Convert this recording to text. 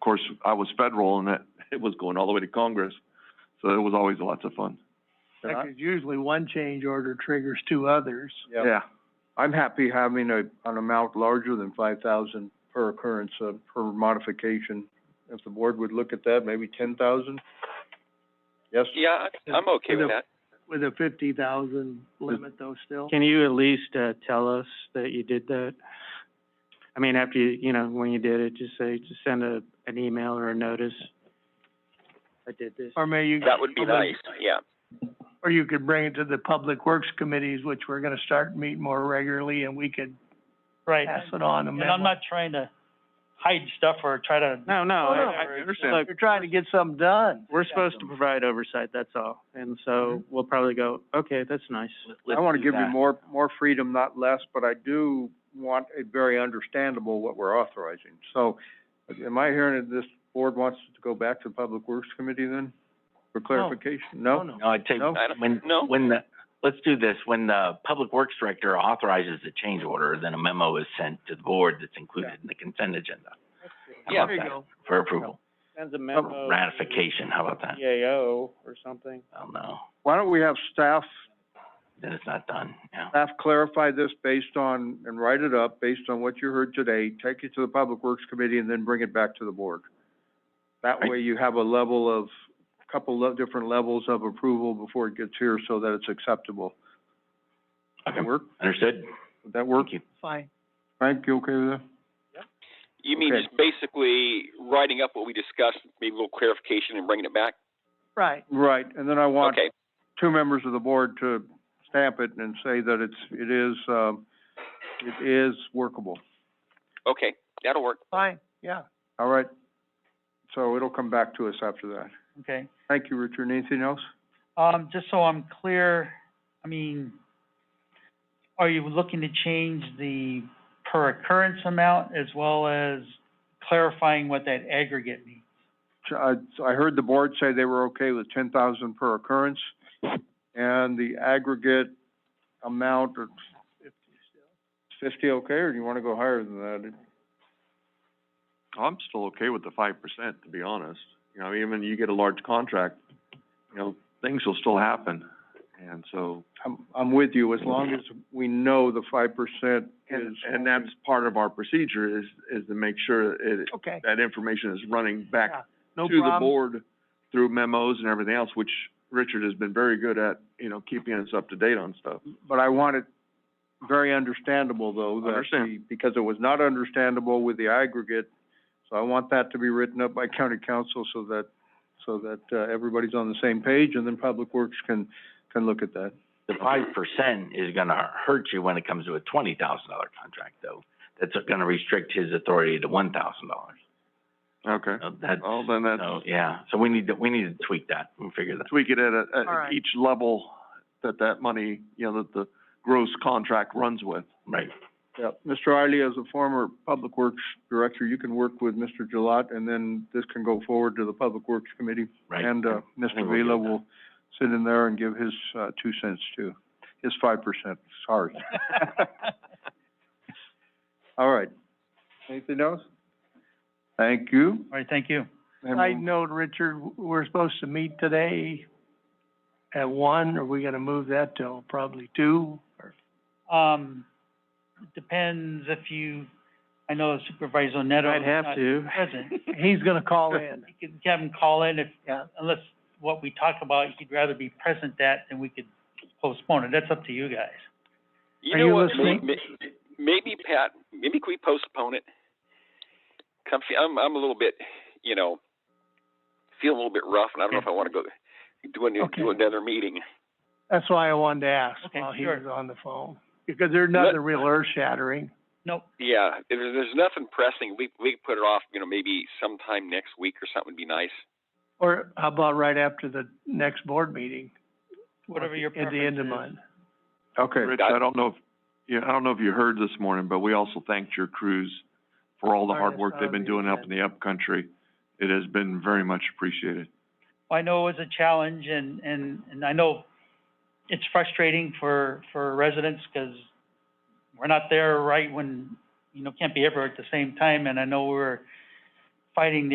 course, I was federal and that, it was going all the way to Congress. So it was always lots of fun. Uh-huh. Because usually one change order triggers two others. Yeah. I'm happy having a, an amount larger than five thousand per occurrence, uh, per modification. If the board would look at that, maybe ten thousand? Yes? Yeah, I- I'm okay with that. With a fifty thousand limit though still? Can you at least, uh, tell us that you did that? I mean, after you, you know, when you did it, just say, just send a, an email or a notice. Uh, I did this. Or may you. That would be nice, yeah. Or you could bring it to the public works committees, which we're gonna start meeting more regularly and we could Right, pass it on a and I'm memo. not trying to hide stuff or try to, No, Oh, no, I, No, no, I I understand. look, You're trying to get something done. we're supposed to provide oversight, that's all. And so we'll probably go, okay, that's nice. I wanna give you more, more freedom, not less, but I do want it very understandable what we're authorizing. So, am I hearing that this board wants to go back to the Public Works Committee then, for clarification? No? No, No, I take, No? I don't- when, no. when the, let's do this, when the Public Works Director authorizes the change order, then a memo is sent to the board that's included in the consent agenda. How Yeah. about that? For approval, Sends a Or ratification, how about that? EAO or something. I don't know, Why don't we have staff then it's not done, yeah. staff clarify this based on, and write it up based on what you heard today, take it to the Public Works Committee, and then bring it back to the board. That way you have a level of, couple of different levels of approval before it gets here so that it's acceptable. Okay, Work, understood, would that work? thank you. fine. Frank, you okay with that? You mean Okay. just basically writing up what we discussed, maybe a little clarification and bringing it back? Right. Right, and then I want Okay, two members of the board to stamp it and say that it's, it is, um, it is workable. okay, that'll work. Fine, yeah. All right? So it'll come back to us after that. okay. Thank you, Richard. Anything else? Um, just so I'm clear, I mean, are you looking to change the per occurrence amount as well as clarifying what that aggregate means? I, I heard the board say they were okay with ten thousand per occurrence, and the aggregate amount of fifty okay, or do you wanna go higher than that? I'm still okay with the five percent, to be honest. You know, even you get a large contract, you know, things will still happen. And so, I'm, I'm with you, as long as we know the five percent is. and, and that's part of our procedure is, is to make sure it, Okay, that information is running back Yeah, no to the problem. board through memos and everything else, which Richard has been very good at, you know, keeping us up to date on stuff. But I want it very understandable, though, that Understand. the- because it was not understandable with the aggregate, so I want that to be written up by county council so that, so that, uh, everybody's on the same page, and then Public Works can, can look at that. The five percent is gonna hurt you when it comes to a twenty thousand dollar contract, though. That's gonna restrict his authority to one thousand dollars. Okay. That's, Well, then that's, so, yeah, so we need to, we need to tweak that and figure that. tweak it at a, All at right. each level that that money, you know, that the gross contract runs with. Right. Yeah, Mr. Riley, as a former Public Works Director, you can work with Mr. Gilat, and then this can go forward to the Public Works Committee. Right. And, uh, think Mr. we'll get Vila that. will sit in there and give his, uh, two cents too, his five percent, sorry. All right. Anything else? Thank you. All right, thank you. And side we'll- note, Richard, we're supposed to meet today at one, are we gonna move that till probably two? Um, depends if you, I know Supervisor Neto I'd is have not to. present. He's gonna call in, You can have him call in if, yeah. unless what we talk about, he'd rather be present that than we could postpone it. That's up to you guys. You Are know you what, may- listening? may- maybe, Pat, maybe could we postpone it? Come, fe- I'm, I'm a little bit, you know, feeling a little bit rough, and I don't know if I wanna go, do an, Okay. do another meeting. That's why I wanted to ask Okay, while he sure. was on the phone, because there's nothing real earth shattering. Nope. Yeah, if there's, there's nothing pressing, we, we could put it off, you know, maybe sometime next week or something would be nice. Or how about right after the next board meeting? Whatever your At the end of preference month. Okay, Rich, I don't know if, yeah, I don't know if you heard this morning, but we also thanked your crews for all the hard work they've been doing up in the upcountry. It has been very much appreciated. I know it was a challenge and, and, and I know it's frustrating for, for residents because we're not there right when, you know, can't be everywhere at the same time. And I know we're fighting the